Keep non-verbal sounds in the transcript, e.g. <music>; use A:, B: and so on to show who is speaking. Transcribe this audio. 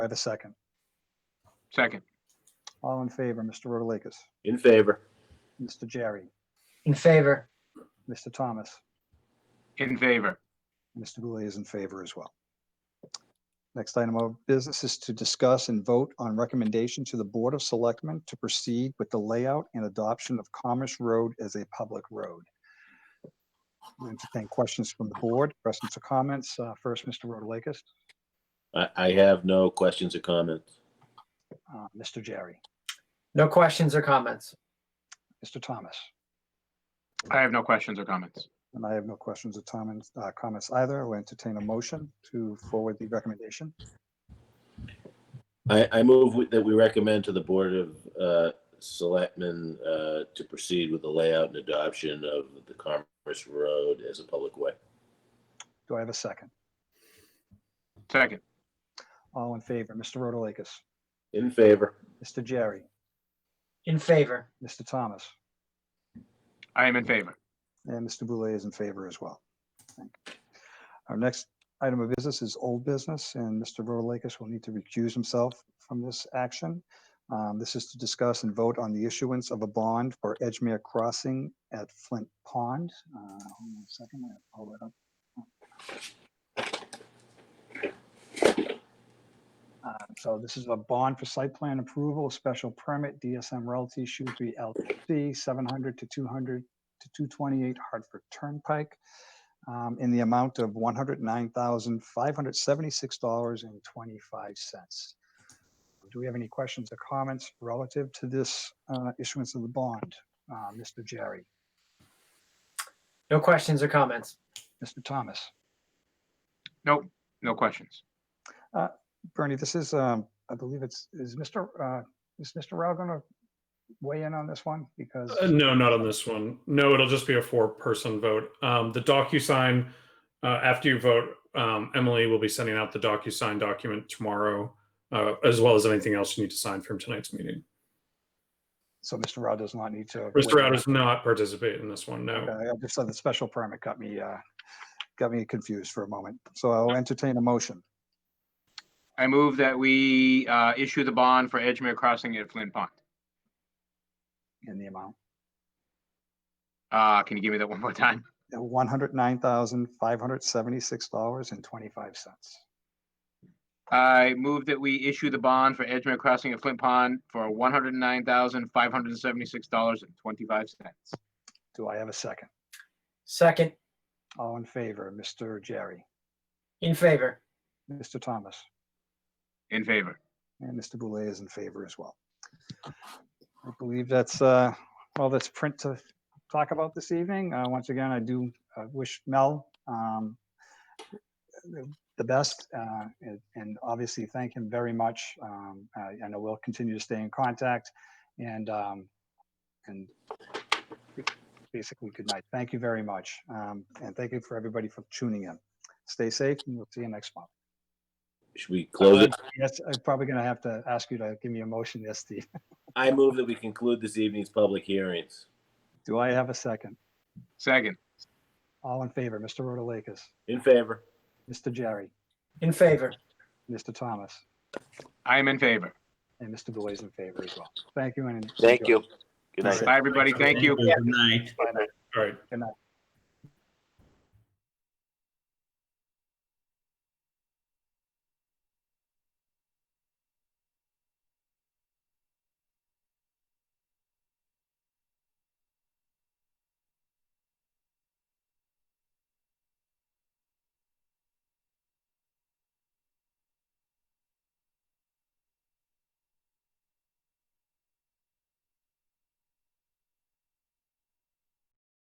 A: I have a second.
B: Second.
A: All in favor, Mr. Rotalakis,
C: In favor.
A: Mr. Jerry,
D: In favor.
A: Mr. Thomas,
B: In favor.
A: Mr. Goulet is in favor as well. Next item of business is to discuss and vote on recommendation to the Board of Selectmen to proceed with the layout and adoption of Commerce Road as a public road. I Entertain questions from the board, questions or comments. Uh, First, Mr. Rotalakis,
C: I, I have no questions or comments.
A: uh, Mr. Jerry,
D: No questions or comments.
A: Mr. Thomas.
B: I have no questions or comments.
A: And I have no questions or comments, uh, comments either. I'll entertain a motion to forward the recommendation.
C: I, I move with- that we recommend to the Board of uh, Selectmen uh, to proceed with the layout and adoption of the Commerce Road as a public way.
A: Do I have a second?
B: Second.
A: All in favor, Mr. Rotalakis,
C: In favor.
A: Mr. Jerry,
D: In favor.
A: Mr. Thomas,
B: I am in favor.
A: and Mr. Boulay is in favor as well. Thank you. Our next item of business is old business, and Mr. Rotalakis will need to recuse himself from this action. Um, This is to discuss and vote on the issuance of a bond for Edgemere Crossing at Flint Pond. Uh, Hold on a second, I'll pull it up. Uh, So this is a bond for site plan approval, special permit, DSM Realty, Shrewsbury LLC, 700 to 200 to 228 Hartford Turnpike, um, in the amount of $109,576.25. Do we have any questions or comments relative to this uh, issuance of the bond? Uh, Mr. Jerry,
D: No questions or comments.
A: Mr. Thomas?
B: Nope. No questions.
A: Bernie, this is, um, I believe it's, is Mr., uh, is Mr. Rao going to weigh in on this one? Because.
E: Uh, no, not on this one. No, it'll just be a four-person vote. Um, the DocuSign, uh, after you vote, um, Emily will be sending out the DocuSign document tomorrow, uh, as well as anything else you need to sign from tonight's meeting.
A: So Mr. Rao does not need to.
E: Mr.
A: weigh
E: Rao
A: in.
E: does not participate in this one, no.
A: Okay, I just saw the special permit got me, uh, got me confused for a moment. So I'll entertain a motion.
B: I move that we uh, issue the bond for Edgemere Crossing at Flint Pond.
A: in the amount,
B: Uh, Can you give me that one more time?
A: one hundred nine thousand, five hundred seventy-six dollars and twenty-five cents.
B: I move that we issue the bond for Edgemere Crossing at Flint Pond for $109,576.25.
A: Do I have a second?
D: Second.
A: All in favor, Mr. Jerry,
D: In favor.
A: Mr. Thomas,
B: In favor.
A: and Mr. Boulay is in favor as well. I believe that's, uh, all that's print to talk about this evening. Uh, once again, I do uh, wish Mel, um, the- the best, uh, and, and obviously thank him very much. Um, I, I know we'll continue to stay in contact and, um, and basically, good night. Thank you very much. Um, and thank you for everybody for tuning in. Stay safe and we'll see you next month.
C: Should we close it?
A: Yes, I'm probably going to have to ask you to give me a motion, yes, Steve. <laughs>
C: I move that we conclude this evening's public hearings.
A: Do I have a second?
B: Second.
A: All in favor, Mr. Rotalakis,
C: In favor.
A: Mr. Jerry,
D: In favor.
A: Mr. Thomas,
B: I am in favor.
A: and Mr. Boulay is in favor as well. Thank you and.
F: Thank
A: enjoy.
F: you. Good night.
B: Bye, everybody. Thank you.
G: Good night.
E: All right.
A: Good night.